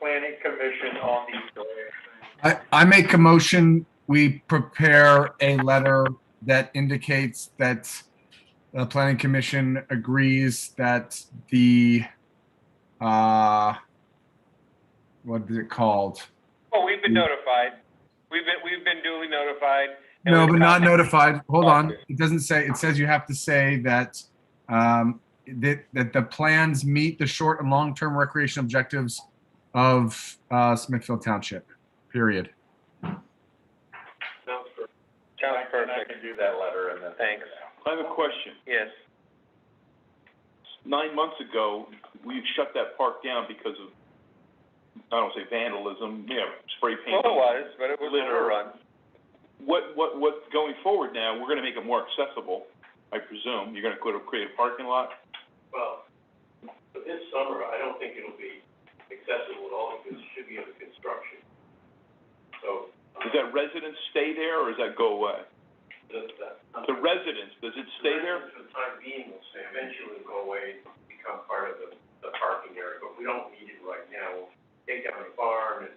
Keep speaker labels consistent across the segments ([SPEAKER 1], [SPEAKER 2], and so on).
[SPEAKER 1] planning commission on the,
[SPEAKER 2] I, I make a motion, we prepare a letter that indicates that the planning commission agrees that the, uh, what is it called?
[SPEAKER 1] well, Oh, we've been notified. We've been, we've been duly notified. and
[SPEAKER 2] No,
[SPEAKER 1] we've
[SPEAKER 2] but not
[SPEAKER 1] gotten-
[SPEAKER 2] notified. Hold on. It doesn't say, it says you have to say that, um, that, that the plans meet the short and long-term recreation objectives of, uh, Smithfield Township, period.
[SPEAKER 1] Sounds perfect. I can do that letter and then. Thanks,
[SPEAKER 3] I have a question.
[SPEAKER 1] yes.
[SPEAKER 3] Nine months ago, we shut that park down because of, I don't say vandalism, yeah, spray
[SPEAKER 1] Well,
[SPEAKER 3] paint.
[SPEAKER 1] it was, but it was
[SPEAKER 3] Litter.
[SPEAKER 1] overrun.
[SPEAKER 3] What, what, what's going forward now, we're gonna make it more accessible, I presume. You're gonna go to create a parking lot?
[SPEAKER 4] Well, for this summer, I don't think it'll be accessible at all because it should be under construction. So, uh,
[SPEAKER 3] Does that residence stay there or does that go away?
[SPEAKER 4] the, the.
[SPEAKER 3] The residence, does it stay there?
[SPEAKER 4] For the time being, will stay, eventually will go away, and become part of the, the parking area, but we don't need it right now. We'll Take down the barn and,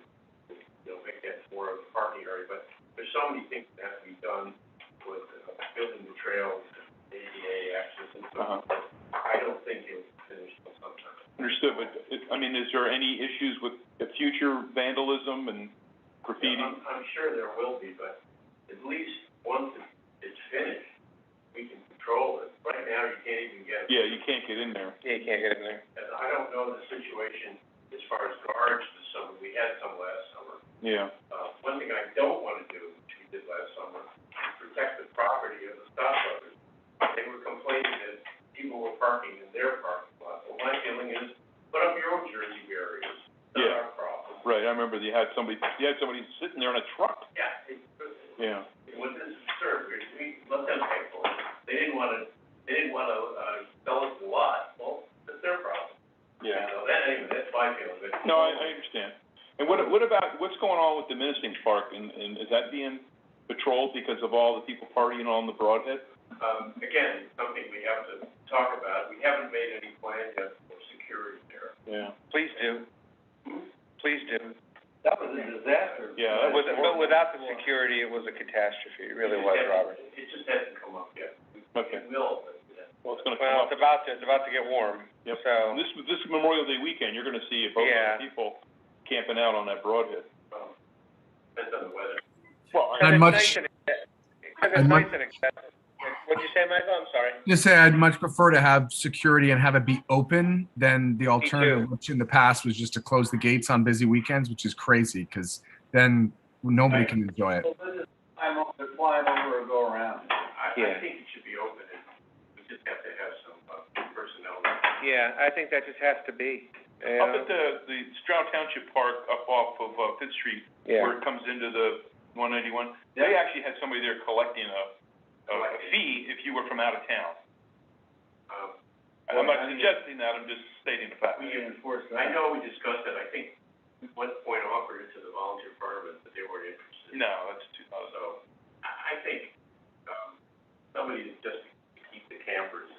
[SPEAKER 4] you know, make that more of a parking area, but there's so many things that have to be done with uh, building the trails, ADA access and so
[SPEAKER 3] Uh-huh.
[SPEAKER 4] forth. I don't think it'll finish till sometime.
[SPEAKER 3] Understood, but, it- I mean, is there any issues with the future vandalism and
[SPEAKER 4] Yeah,
[SPEAKER 3] graffiti?
[SPEAKER 4] I'm, I'm sure there will be, but at least once it- it's finished, we can control it. Right now, you can't even get,
[SPEAKER 3] Yeah, you can't get in there.
[SPEAKER 1] Yeah, you can't get in there.
[SPEAKER 4] and I don't know the situation as far as guards this summer. We had some last summer.
[SPEAKER 3] Yeah.
[SPEAKER 4] Uh, one thing I don't wanna do, which we did last summer, is protect the property of the stoplights. They were complaining that people were parking in their parking lot. Well, my feeling is, put up your own Jersey barriers. Not
[SPEAKER 3] Yeah.
[SPEAKER 4] our problem.
[SPEAKER 3] Right, I remember you had somebody, you had somebody sitting there in a truck.
[SPEAKER 4] Yeah, it,
[SPEAKER 3] Yeah.
[SPEAKER 4] What this absurd, we, we let them pay for it. They didn't wanna, they didn't wanna, uh, sell us the lot, well, that's their problem. You know, that, anyway, that's my feeling, but.
[SPEAKER 3] No, I, I understand. And what, what about, what's going on with the Menacing Park, and, and is that being patrolled because of all the people partying on the Broadhead?
[SPEAKER 4] Um, again, something we have to talk about, we haven't made any plans yet for security there.
[SPEAKER 3] Yeah.
[SPEAKER 1] Please do. Please do.
[SPEAKER 4] That was a disaster.
[SPEAKER 3] Yeah, that
[SPEAKER 1] With, but without the security, it was a catastrophe. It really was, Robert.
[SPEAKER 4] It just hasn't come up yet.
[SPEAKER 3] Okay,
[SPEAKER 4] It will, but, uh,
[SPEAKER 3] well, it's gonna
[SPEAKER 1] Well,
[SPEAKER 3] come
[SPEAKER 1] it's
[SPEAKER 3] up.
[SPEAKER 1] about to, it's about to get warm,
[SPEAKER 3] Yep.
[SPEAKER 1] so.
[SPEAKER 3] This, this Memorial Day weekend, you're gonna see a boatload
[SPEAKER 1] Yeah.
[SPEAKER 3] of people camping out on that Broadhead.
[SPEAKER 4] um, depends on the weather.
[SPEAKER 3] Well,
[SPEAKER 1] Because
[SPEAKER 2] I'd
[SPEAKER 1] it's
[SPEAKER 2] much-
[SPEAKER 1] nice and acce- because it's
[SPEAKER 2] I'd much-
[SPEAKER 1] nice and accessible. What'd you say, Michael? I'm sorry.
[SPEAKER 2] Just say I'd much prefer to have security and have it be open than the alternative, which in the past was just to close the gates on busy weekends, which is crazy because then nobody can enjoy it.
[SPEAKER 4] I'm on the flying over or go around. I,
[SPEAKER 1] Yeah.
[SPEAKER 4] I think it should be open and we just have to have some, uh, personnel. there.
[SPEAKER 1] Yeah, I think that just has to be, you
[SPEAKER 3] Up
[SPEAKER 1] know?
[SPEAKER 3] at the, the Stroud Township Park up off of, uh, Fifth Street,
[SPEAKER 1] Yeah,
[SPEAKER 3] where it comes into the one ninety-one, they actually had somebody there collecting a, a a fee if you were from out of town.
[SPEAKER 4] Um,
[SPEAKER 3] And I'm not suggesting that, I'm just stating the fact.
[SPEAKER 4] we, I know we discussed it, I think at one point offered it to the volunteer firemen, but they weren't interested.
[SPEAKER 3] No, that's too, uh, that was-
[SPEAKER 4] So, I, I think, um, somebody just to keep the campers,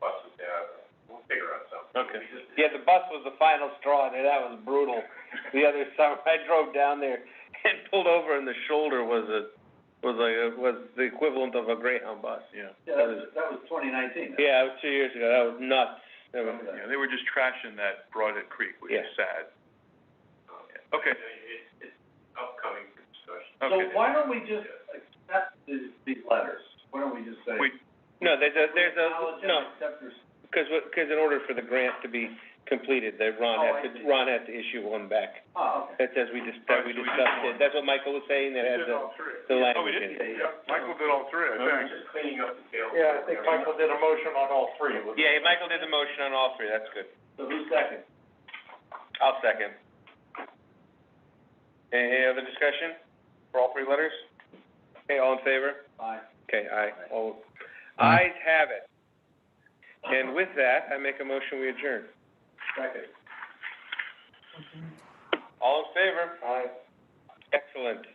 [SPEAKER 4] buses out, we'll figure out something.
[SPEAKER 3] Okay.
[SPEAKER 4] We just-
[SPEAKER 5] Yeah, the bus was the final straw there. That was brutal. The other summer, I drove down there and pulled over and the shoulder was a, was like, a- was the equivalent of a Greyhound bus.
[SPEAKER 3] yeah.
[SPEAKER 5] that was, that was twenty nineteen. Yeah, it was two years ago. That was nuts. That was-
[SPEAKER 3] Yeah, they were just trashing that Broadhead Creek, which is
[SPEAKER 5] Yeah.
[SPEAKER 3] sad.
[SPEAKER 4] Um, it-
[SPEAKER 3] Okay,
[SPEAKER 4] It's, it's upcoming discussion.
[SPEAKER 3] okay.
[SPEAKER 6] don't we just accept these, these letters? Why don't we just say?
[SPEAKER 3] We-
[SPEAKER 5] No, there's a, there's a, no,
[SPEAKER 6] Accept your.
[SPEAKER 5] cause, what- cause in order for the grant to be completed, that Ron had to, Ron had to issue one back.
[SPEAKER 6] Oh, okay.
[SPEAKER 5] That says we dis- that we
[SPEAKER 3] Right, so we did
[SPEAKER 5] discussed it.
[SPEAKER 3] one.
[SPEAKER 5] That's what Michael was saying, that has the,
[SPEAKER 4] three.
[SPEAKER 5] the
[SPEAKER 3] Oh, we
[SPEAKER 5] language in
[SPEAKER 3] did?
[SPEAKER 5] it.
[SPEAKER 3] Michael did all three, I think.
[SPEAKER 4] Just cleaning up the field.
[SPEAKER 1] did a motion on all three. Yeah, Michael did the motion on all three, that's good.
[SPEAKER 6] So who's second?
[SPEAKER 1] I'll second. Any other discussion for all three letters? Okay, all in favor?
[SPEAKER 6] Aye.
[SPEAKER 5] Okay, aye. All, ayes have it. And with that, I make a motion, we adjourn.
[SPEAKER 6] Second.
[SPEAKER 1] All in favor?
[SPEAKER 5] Excellent.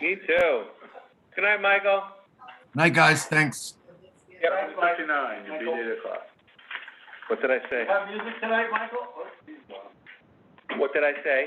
[SPEAKER 5] Me too. Good night, Michael.
[SPEAKER 2] Night, guys. Thanks.
[SPEAKER 5] Yep.
[SPEAKER 3] Fifty-nine,
[SPEAKER 6] you'll be at
[SPEAKER 3] eight o'clock.
[SPEAKER 5] What did I say?
[SPEAKER 6] Have music tonight, Michael? Oh, geez, wow.
[SPEAKER 1] What did I say?